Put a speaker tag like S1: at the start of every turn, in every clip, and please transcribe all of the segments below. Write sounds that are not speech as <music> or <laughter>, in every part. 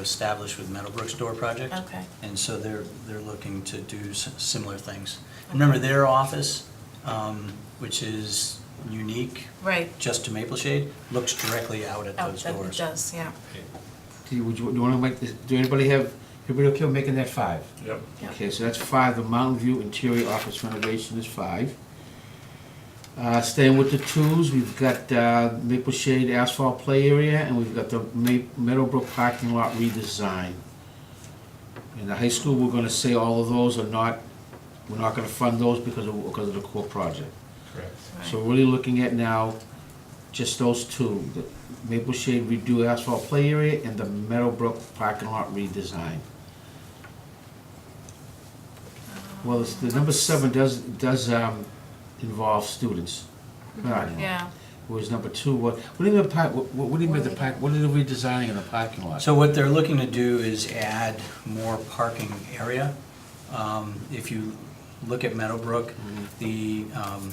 S1: established with Meadowbrook's door project.
S2: Okay.
S1: And so they're, they're looking to do s- similar things. Remember, their office, um, which is unique
S2: Right.
S1: just to Maple Shade, looks directly out at
S2: Oh,
S1: those
S2: that it
S1: doors.
S2: does, yeah.
S3: Do you, would you, do you wanna make this, do anybody have, everybody okay with making that five?
S4: Yep.
S2: Yeah.
S3: Okay, so that's five, the Mountain View interior office renovation is five. Uh, staying with the twos, we've got, uh, Maple Shade asphalt play area, and we've got the Ma- Meadowbrook parking lot redesign. In the high school, we're gonna say all of those are not, we're not gonna fund those because of, because of the core project.
S4: Correct.
S3: So
S2: Right.
S3: we're really looking at now just those two, the Maple Shade redo asphalt play area and the Meadowbrook parking lot redesign.
S2: Uh-huh.
S3: Well, it's- the number seven does, does um, involve students. Right.
S2: Mm-hmm. Yeah,
S3: Whereas number two, what, what do you mean, par- what what do you mean the park, what are they redesigning in the parking lot?
S1: So what they're looking to do is add more parking area. Um, If you look at Meadowbrook, the, um,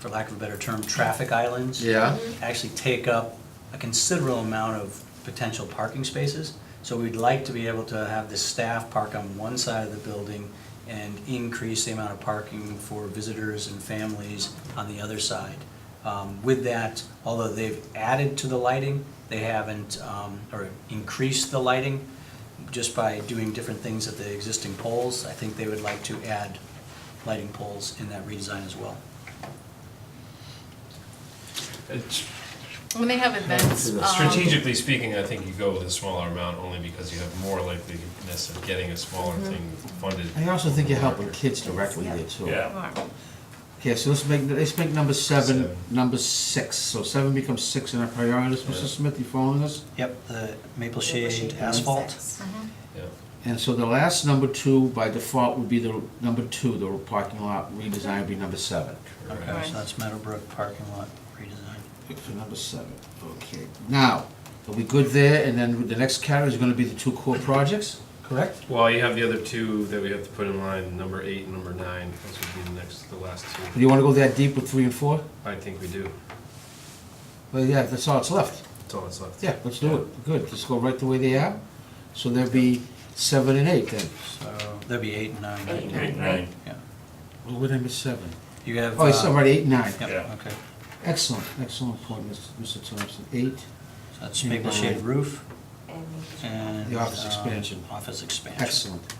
S1: for lack of a better term, traffic islands.
S3: Yeah,
S1: actually take up a considerable amount of potential parking spaces. So we'd like to be able to have the staff park on one side of the building and increase the amount of parking for visitors and families on the other side. Um, With that, although they've added to the lighting, they haven't, um, or increased the lighting just by doing different things at the existing poles. I think they would like to add lighting poles in that redesign as well.
S4: It's-
S2: when they have events. um,
S4: Strategically speaking, I think you go with a smaller amount only because you have more likeliness of getting a smaller thing funded.
S3: I also think you're helping kids directly there too.
S4: Yeah.
S2: Right.
S3: Okay, so let's make, let's make number seven,
S4: Seven.
S3: number six, so seven becomes six in our priorities,
S4: Yeah.
S3: Mr. Smith, you following us?
S1: Yep, the maple shade asphalt.
S2: Mm-hmm.
S4: Yeah.
S3: And so the last number two by default would be the number two, the parking lot redesign would be number seven.
S1: Okay,
S2: Right.
S1: so that's Meadowbrook parking lot redesign.
S3: So number seven, okay. Now, are we good there? And then the next category is gonna be the two core projects, correct?
S4: Well, you have the other two that we have to put in line, number eight and number nine, those would be the next, the last
S3: Do
S4: two.
S3: you wanna go that deep with three and four?
S4: I think we do,
S3: Well, yeah, that's all that's left.
S4: that's all that's left.
S3: Yeah, let's do it. Good, just go right the way they are. So there'd be seven and eight then.
S1: So that'd be eight and nine.
S2: Eight and nine, right?
S1: Yeah.
S3: What would I miss seven?
S1: You have.
S3: Oh, it's
S1: uh,
S3: already eight, and nine.
S1: Yep,
S4: Yeah.
S1: okay.
S3: Excellent, excellent point, Mr. Thompson. Eight,
S1: So that's
S3: Eight and
S1: maple shade
S3: nine.
S1: roof and.
S3: The office
S1: um,
S3: expansion.
S1: Office expansion.
S3: excellent.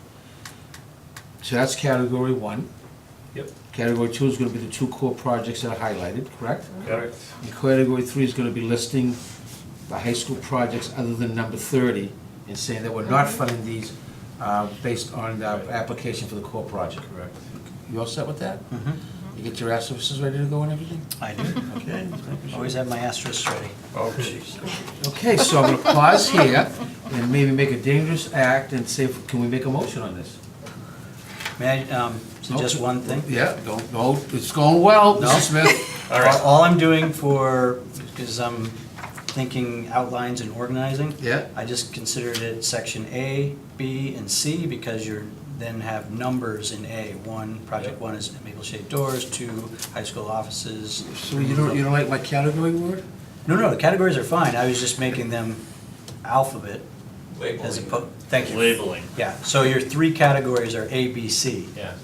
S3: So that's category one.
S4: Yep.
S3: Category two is gonna be the two core projects that are highlighted, correct?
S4: Correct.
S3: And category three is gonna be listing the high school projects other than number thirty and saying that we're not funding these uh, based on the application for the core project.
S4: Correct.
S3: You all set with that?
S1: Mhm.
S3: You get your asterisk's ready to go and everything?
S1: I do.
S4: <laughs>
S3: Okay.
S1: Always have my asterisks ready.
S4: Oh, jeez.
S3: Okay, so I'm gonna pause here and maybe make a dangerous act and say, can we make a motion on this?
S1: May I um, suggest
S3: Nope.
S1: one thing?
S3: Yeah, don't, no, it's going well,
S1: No.
S3: Mr. Smith.
S4: All right.
S1: All I'm doing for, because I'm thinking outlines and organizing.
S3: Yeah.
S1: I just considered it section A, B, and C because you're, then have numbers in A. One, project
S4: Yep.
S1: one is maple shade doors, two, high school offices.
S3: So you don't, you don't like my category word?
S1: No, no, the categories are fine, I was just making them alphabet as opposed, thank you.
S5: Labeling.
S1: Yeah, so your three categories are A, B, C.
S4: Yeah.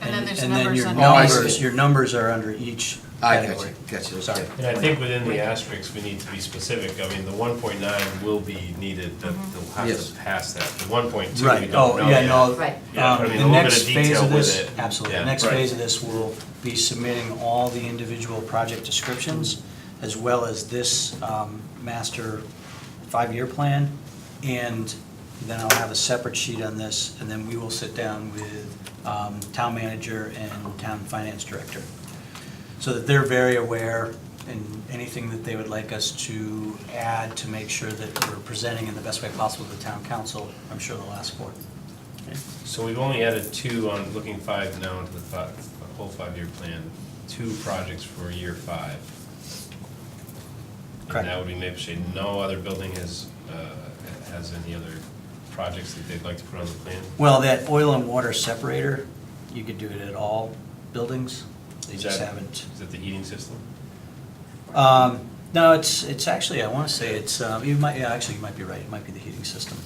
S2: And then there's
S1: and then
S2: numbers
S1: your
S2: under.
S3: Oh, I see.
S1: numbers- Your numbers are under each
S3: I got you,
S1: category.
S3: got you,
S1: Sorry.
S3: okay.
S4: And I think within the asterisks, we need to be specific. I mean, the one point nine will be needed, that they'll have
S3: Yes.
S4: to pass that. The one point two, we
S1: Right,
S4: don't know
S1: oh, yeah,
S4: yet.
S1: no.
S6: Right.
S4: Yeah,
S1: um,
S4: I mean, a
S1: the
S4: little bit
S1: next
S4: of
S1: phase
S4: detail
S1: of
S4: with
S1: this-
S4: it.
S1: Absolutely, the
S4: Yeah,
S1: next
S4: right.
S1: phase of this will be submitting all the individual project descriptions, as well as this um, master five-year plan, and then I'll have a separate sheet on this, and then we will sit down with um, town manager and town finance director, so that they're very aware and anything that they would like us to add to make sure that we're presenting in the best way possible to the town council, I'm sure they'll ask for it.
S4: So we've only added two on looking five now into the five, the whole five-year plan, two projects for year five.
S1: Correct.
S4: And that would be Maple Shade. No other building has, uh, has any other projects that they'd like to put on the plan?
S1: Well, that oil and water separator, you could do it at all buildings. They
S4: Is
S1: just
S4: that-
S1: haven't.
S4: Is that the heating system?
S1: Um, No, it's, it's actually, I want to say it's, um, you might, yeah, actually, you might be right. It might be the heating system.